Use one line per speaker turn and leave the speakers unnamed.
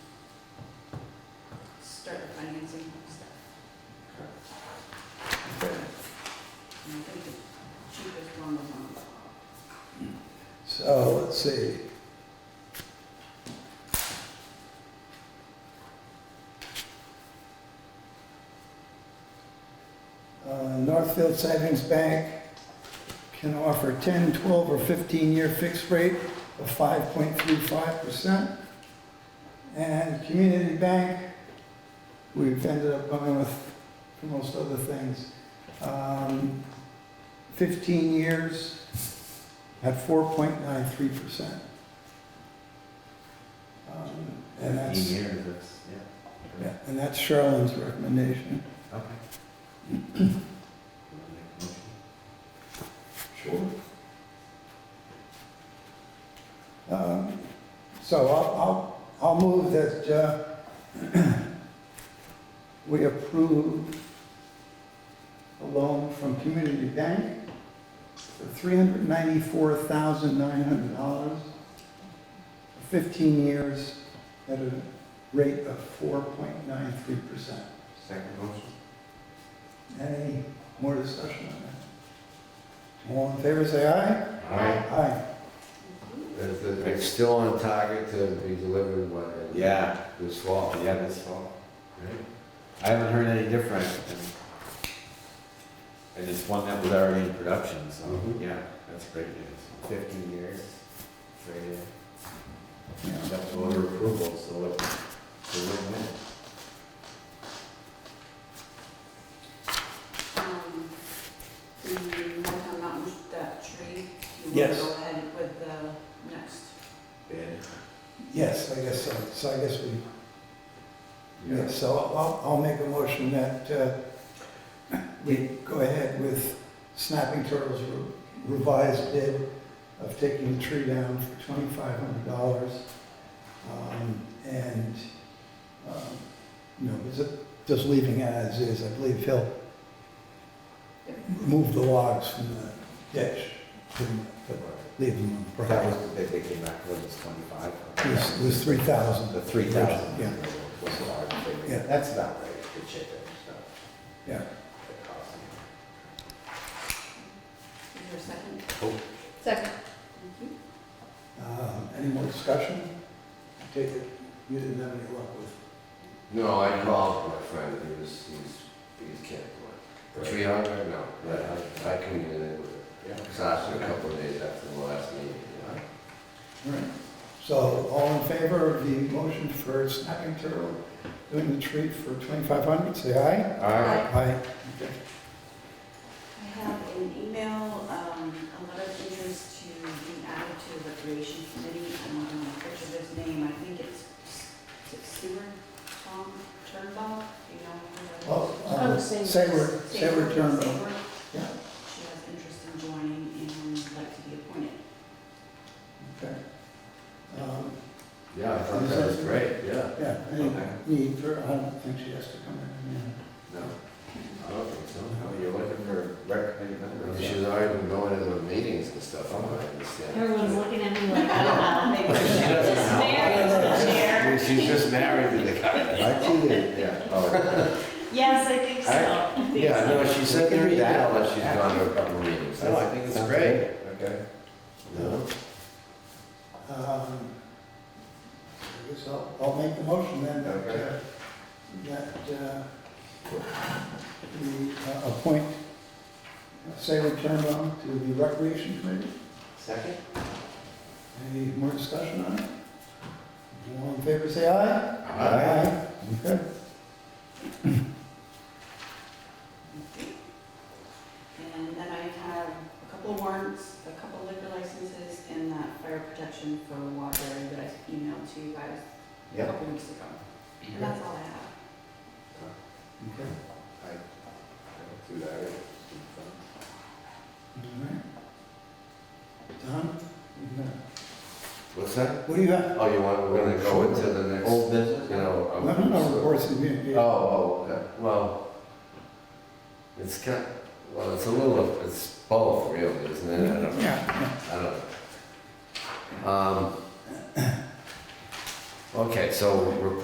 start our financing stuff.
Okay.
And I think the cheapest one was on
So, let's see. Uh, Northfield Savings Bank can offer 10, 12, or 15-year fixed rate of 5.35%. And Community Bank, we've ended up going with, for most other things, um, 15 years, at four point nine three percent. Um, And that's,
Fifteen years, that's, yeah.
yeah, and that's Charlene's recommendation.
Okay. You wanna make a motion?
Sure. Um, So I'll, I'll, I'll move that, uh, we approve a loan from Community Bank for three hundred ninety-four thousand nine hundred dollars, fifteen years at a rate of four point nine three percent.
Second motion?
Any more discussion on that? All in favor, say aye.
Aye.
Aye.
one.
It's- It's still on target to be delivered, what? in
Yeah,
This fall.
yeah, this fall. Great. I haven't heard any different. and- And it's one that was already in production, so,
Mhm.
Mm-hmm.
yeah, that's great news. Fifteen years, great,
Yeah.
that's order approval, so it, it's a win-win.
Um, The Mohawk Mountain, that tree. you
Yes.
wanna Go ahead with the next.
Bid.
Yes, I guess so. So I guess we, yeah,
Yeah.
so I'll, I'll make a motion that uh, we go ahead with Snapping Turtles re- revised bid of taking the tree down for twenty-five hundred dollars. And, um, you know, is it- just leaving it as is, I believe he'll remove the logs from the ditch, pretty much, but leave them on the
That
property.
was the bid they came back with, was twenty-five.
It was- It was three thousand.
The three thousand.
Yeah.
Was the large figure.
Yeah.
That's about right, the chip and stuff.
Yeah.
The cost.
Is there a second?
Second.
Thank you.
Um, Any more discussion? I Take it, you didn't have any luck with.
No, I called my friend, he was, he's, he's can't do it. Three hundred, no, but I, I couldn't get in with it.
Yeah.
Because after a couple of days after the last meeting, you know.
All right. So all in favor of the motion for snapping turtle doing the treat for 2,500, say aye.
Aye.
Aye. Okay.
I have an email, um, a letter of interest to be added to the recreation committee. I don't know the this name. I think it's is it Seward, Tom Turnbull. Do you know? who that is?
Well,
I
um,
would say-
say we're, say we're turned over.
Seward.
Yeah.
She has interest in joining and would like to be appointed.
Okay. Um,
Yeah, I thought that was great, yeah.
Yeah, any need for, I don't think she has to come in. yeah.
No, I don't think so. No, You're looking for rec committee members.
She's already been going to the meetings and stuff, I'm not
Everyone's
understanding.
looking at me like, I don't know.
Maybe she
This
doesn't know.
mayor is the chair.
She's just married to the guy.
I did, yeah. Oh,
Yes, I think so.
I-
I think
Yeah,
so.
no, she said
Look
there
at that.
that, but she's gone to a couple of meetings.
No, Oh, I think it's great. Okay.
No?
Um, I guess I'll, I'll make the motion then, that, uh,
Okay.
that, uh, we uh, appoint Sarah Turnbull to the Recreation Committee.
Second?
Any more discussion on it? All in favor, say aye.
Uh-huh.
Okay.
And then I have a couple warrants, a couple liquor licenses, and that fire protection for Waterbury that I emailed to you guys a
Yep.
couple weeks ago. And that's all I have.
Okay.
Do that.
All right. Don? you got-
What's that?
What do you got?
Oh, you want, we're gonna go into the next,
Old business?
you know.
No,
um,
no, no,
so-
reports and communications.
Oh, oh, okay. well, it's kind, well, it's a little, of- it's both really, isn't it? I don't,
Yeah,
I don't know. Um, Okay, so we're